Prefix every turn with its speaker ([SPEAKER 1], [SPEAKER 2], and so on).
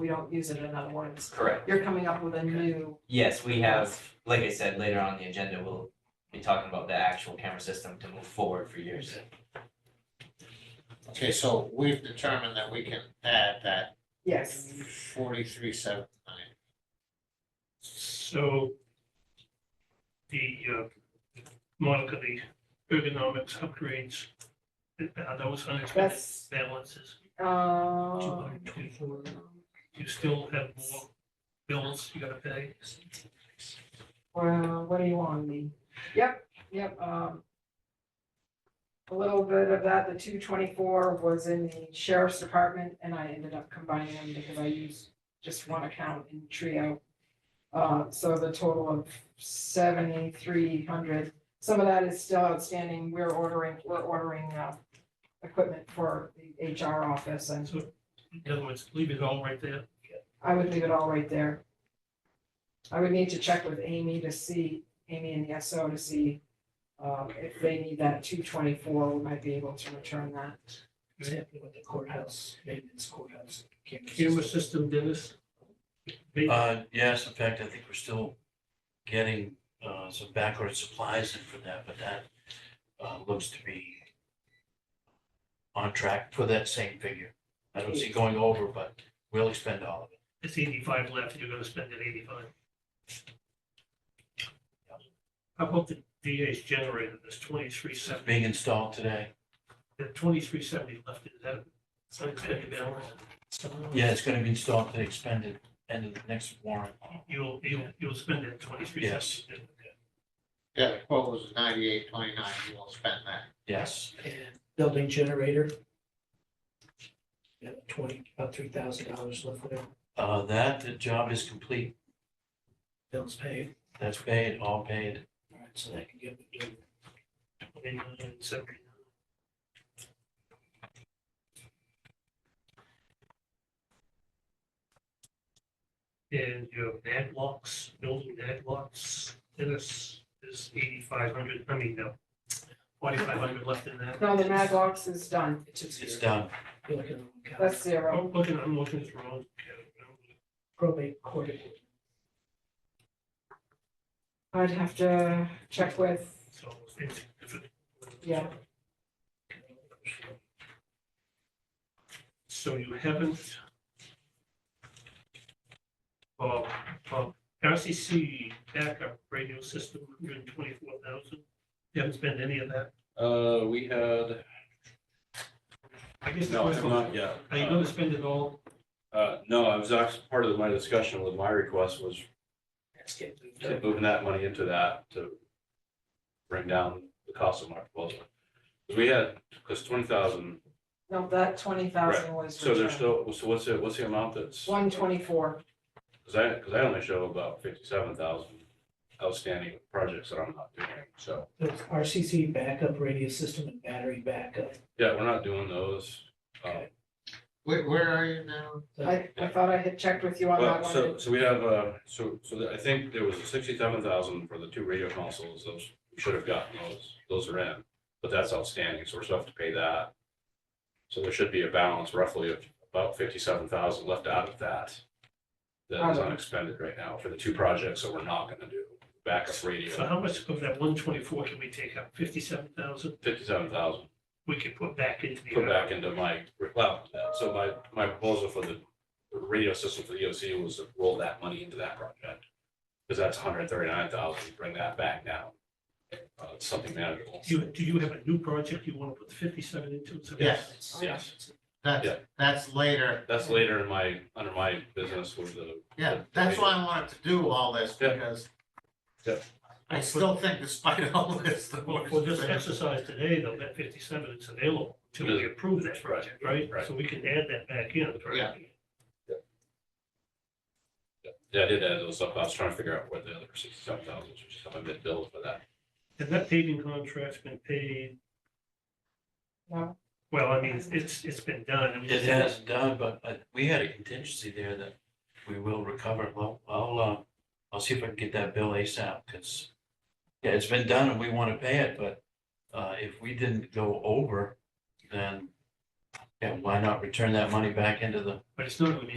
[SPEAKER 1] we don't use it in other words.
[SPEAKER 2] Correct.
[SPEAKER 1] You're coming up with a new,
[SPEAKER 2] Yes, we have, like I said, later on in the agenda, we'll be talking about the actual camera system to move forward for years.
[SPEAKER 3] Okay, so we've determined that we can add that
[SPEAKER 1] yes,
[SPEAKER 3] forty-three seven nine.
[SPEAKER 4] So the uh, Monica, the ergonomics upgrades, are those unexpected
[SPEAKER 1] that's,
[SPEAKER 4] balances? Two
[SPEAKER 1] uh,
[SPEAKER 4] hundred twenty-four, you still have more bills you gotta pay?
[SPEAKER 1] well, what do you want me? Yep, yep, um. A little bit of that, the two twenty-four was in the sheriff's department and I ended up combining them because I used just one account in Trio. Uh, so the total of seventy-three hundred, some of that is still outstanding, we're ordering, we're ordering, uh. Equipment for the HR office and
[SPEAKER 4] In other words, leave it all right there.
[SPEAKER 1] I would leave it all right there. I would need to check with Amy to see, Amy and the SO to see, um, if they need that two twenty-four, we might be able to return that.
[SPEAKER 5] Exactly what the courthouse, maybe it's courthouse. camera
[SPEAKER 4] Camera
[SPEAKER 5] system.
[SPEAKER 4] system, Dennis? They-
[SPEAKER 6] Uh, yes, in fact, I think we're still getting, uh, some backward supplies in for that, but that, uh, looks to be on track for that same figure. I don't see going over, but we'll expend all of it.
[SPEAKER 4] It's eighty-five left, you're gonna spend it eighty-five. How about the DA's generator, there's twenty-three
[SPEAKER 6] It's
[SPEAKER 4] seventy,
[SPEAKER 6] being installed today.
[SPEAKER 4] the twenty-three seventy left, is that an unexpected balance?
[SPEAKER 6] Yeah, it's gonna be installed today, expended, end of the next warrant.
[SPEAKER 4] You'll, you'll, you'll spend that twenty-three
[SPEAKER 6] Yes.
[SPEAKER 4] seventy.
[SPEAKER 3] Yeah, the quote was ninety-eight twenty-nine, you will spend that.
[SPEAKER 6] Yes,
[SPEAKER 5] And building generator. Yeah, twenty, about three thousand dollars left there,
[SPEAKER 6] uh, that, the job is complete.
[SPEAKER 5] bills paid,
[SPEAKER 6] That's paid, all paid.
[SPEAKER 5] all right, so that can get me to
[SPEAKER 4] Twenty-nine seventy. And your ad blocks, building ad blocks, Dennis is eighty-five hundred, I mean, no, forty-five hundred left in that.
[SPEAKER 1] No, the Mad Box is done,
[SPEAKER 5] It's a zero.
[SPEAKER 6] It's done.
[SPEAKER 5] You're looking at one count.
[SPEAKER 1] that's zero.
[SPEAKER 4] I'm looking, I'm looking at the wrong. account.
[SPEAKER 5] probate court.
[SPEAKER 1] I'd have to check with,
[SPEAKER 4] So it's different.
[SPEAKER 1] Yeah.
[SPEAKER 4] So you haven't. Well, well, RCC backup radio system, hundred and twenty-four thousand. You haven't spent any of that.
[SPEAKER 7] Uh, we had,
[SPEAKER 4] I guess the
[SPEAKER 7] no,
[SPEAKER 4] question-
[SPEAKER 7] not yet.
[SPEAKER 4] Are you gonna spend it all?
[SPEAKER 7] Uh, no, I was actually, part of my discussion with my request was
[SPEAKER 5] That's getting moved up.
[SPEAKER 7] moving that money into that to bring down the cost of my proposal. 'Cause We had, because twenty thousand,
[SPEAKER 1] no, that twenty thousand was
[SPEAKER 7] so
[SPEAKER 1] returned.
[SPEAKER 7] there's still, so what's it, what's the amount that's?
[SPEAKER 1] One twenty-four,
[SPEAKER 7] Because I, because I only show about fifty-seven thousand outstanding projects that I'm not doing. So,
[SPEAKER 5] That's RCC backup radio system and battery backup.
[SPEAKER 7] yeah, we're not doing those. Um,
[SPEAKER 3] Where, where are you now?
[SPEAKER 1] I, I thought I had checked with you on that
[SPEAKER 7] Well,
[SPEAKER 1] one.
[SPEAKER 7] so, so we have, uh, so, so that- I think there was sixty-seven thousand for the two radio consoles, those, we should have gotten those, those are in. But that's outstanding, so we're still have to pay that. So there should be a balance roughly of about fifty-seven thousand left out of that. That is
[SPEAKER 1] Okay.
[SPEAKER 7] unexpended right now for the two projects that we're not gonna do, backup
[SPEAKER 4] So
[SPEAKER 7] radio,
[SPEAKER 4] how much of that one twenty-four can we take out? Fifty-seven thousand?
[SPEAKER 7] fifty-seven thousand,
[SPEAKER 4] We can put back into the.
[SPEAKER 7] put back into my, well, so my, my proposal for the radio system for the EOC was to roll that money into that project. Because that's hundred thirty-nine thousand, bring that back now. Uh, it's something manageable.
[SPEAKER 4] Do you, do you have a new project you wanna put fifty-seven into? So
[SPEAKER 3] Yes.
[SPEAKER 7] Yes,
[SPEAKER 3] That's,
[SPEAKER 7] Yeah.
[SPEAKER 3] that's later.
[SPEAKER 7] that's later in my, under my business with the.
[SPEAKER 3] Yeah, that's why I wanted to do all this
[SPEAKER 7] Yeah.
[SPEAKER 3] because
[SPEAKER 7] Yeah.
[SPEAKER 3] I still think despite all this, the
[SPEAKER 4] Well,
[SPEAKER 3] board's
[SPEAKER 4] for this
[SPEAKER 3] been-
[SPEAKER 4] exercise today, though, that fifty-seven, it's available till we approve that project, right?
[SPEAKER 7] Right.
[SPEAKER 4] So we can add that back in. correct?
[SPEAKER 3] Yeah.
[SPEAKER 7] Yeah, I did add those up, I was trying to figure out where the other sixty-seven thousand, which is something that billed for that.
[SPEAKER 4] And that paving contract's been paid,
[SPEAKER 1] No,
[SPEAKER 4] well, I mean, it's, it's been done. I mean,
[SPEAKER 6] It hasn't done, but uh, we had a contingency there that we will recover. Well, I'll, uh, I'll see if I can get that bill ASAP, because yeah, it's been done and we want to pay it, but, uh, if we didn't go over, then yeah, why not return that money back into the
[SPEAKER 4] But it's not, gonna be